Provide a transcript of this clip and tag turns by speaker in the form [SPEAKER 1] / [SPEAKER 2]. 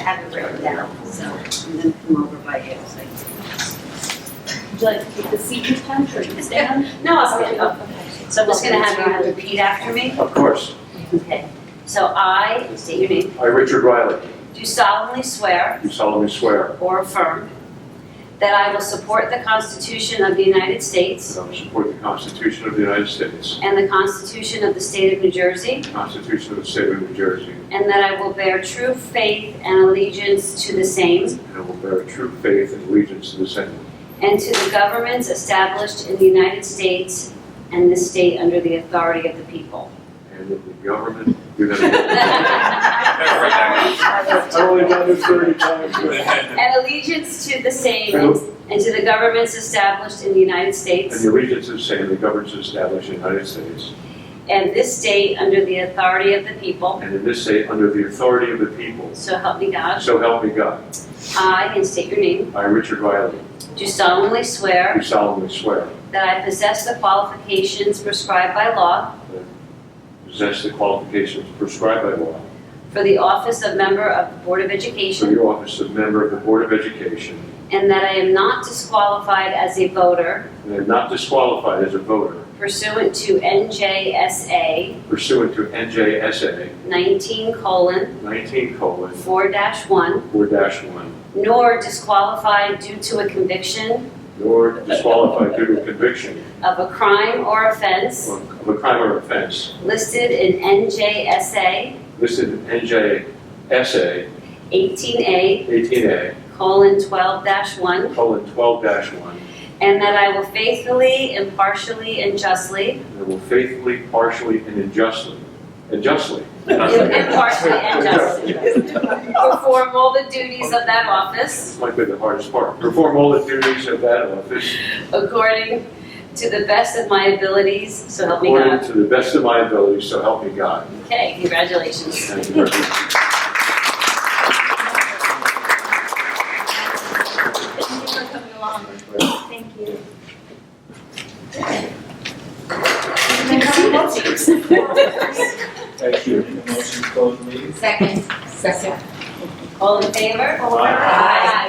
[SPEAKER 1] have it written down, so, and then come over by you, so.
[SPEAKER 2] Would you like to keep the seat, Pen, or you can stand?
[SPEAKER 1] No, I'll stand up.
[SPEAKER 2] Okay.
[SPEAKER 1] So I'm just gonna have you repeat after me.
[SPEAKER 3] Of course.
[SPEAKER 1] Okay. So I, state your name,
[SPEAKER 3] I, Richard Riley,
[SPEAKER 1] do solemnly swear
[SPEAKER 3] do solemnly swear
[SPEAKER 1] or affirm that I will support the Constitution of the United States
[SPEAKER 3] that I will um, support the Constitution of the United States,
[SPEAKER 1] and the Constitution of the State of New Jersey,
[SPEAKER 3] the Constitution of the State of New Jersey,
[SPEAKER 1] and that I will bear true faith and allegiance to the same
[SPEAKER 3] and I will bear true faith and allegiance to the same,
[SPEAKER 1] and to the governments established in the United States and this state under the authority of the people.
[SPEAKER 3] and that the government. I
[SPEAKER 1] And
[SPEAKER 3] only done this thirty times.
[SPEAKER 1] allegiance to the same and to the governments established in the United
[SPEAKER 3] And
[SPEAKER 1] States
[SPEAKER 3] the allegiance is same, the government is established in the United States,
[SPEAKER 1] and this state under the authority of the people.
[SPEAKER 3] and in this state, under the authority of the people.
[SPEAKER 1] So help me God.
[SPEAKER 3] So help me God.
[SPEAKER 1] I, and state your name,
[SPEAKER 3] I, Richard Riley,
[SPEAKER 1] do solemnly swear
[SPEAKER 3] do solemnly swear
[SPEAKER 1] that I possess the qualifications prescribed by law
[SPEAKER 3] possess the qualifications prescribed by law
[SPEAKER 1] for the office of member of the Board of
[SPEAKER 3] for
[SPEAKER 1] Education
[SPEAKER 3] the office of member of the Board of Education,
[SPEAKER 1] and that I am not disqualified as a voter
[SPEAKER 3] and am not disqualified as a voter
[SPEAKER 1] pursuant to NJSA
[SPEAKER 3] pursuant to NJSA
[SPEAKER 1] 19 colon
[SPEAKER 3] 19 colon
[SPEAKER 1] 4 1
[SPEAKER 3] 4 one,
[SPEAKER 1] nor disqualified due to a conviction
[SPEAKER 3] nor disqualified due to conviction
[SPEAKER 1] of a crime or offense
[SPEAKER 3] of a crime or offense
[SPEAKER 1] listed in NJSA
[SPEAKER 3] listed in NJSA
[SPEAKER 1] 18A
[SPEAKER 3] 18A
[SPEAKER 1] colon 12 1
[SPEAKER 3] colon 12 one,
[SPEAKER 1] and that I will faithfully, impartially, and justly
[SPEAKER 3] and I will faithfully, partially, and unjustly, and justly
[SPEAKER 1] impartially and justly perform all the duties of that office
[SPEAKER 3] This might be the hardest part. Perform all the duties of that office
[SPEAKER 1] according to the best of my abilities, so help me
[SPEAKER 3] according
[SPEAKER 1] God.
[SPEAKER 3] to the best of my ability, so help me God.
[SPEAKER 1] Okay, congratulations.
[SPEAKER 3] Thank you very much.
[SPEAKER 2] Thank you for coming along. Thank you.
[SPEAKER 4] Thank you. Motion to close meeting?
[SPEAKER 5] Second. Second.
[SPEAKER 1] All in favor?
[SPEAKER 4] Aye.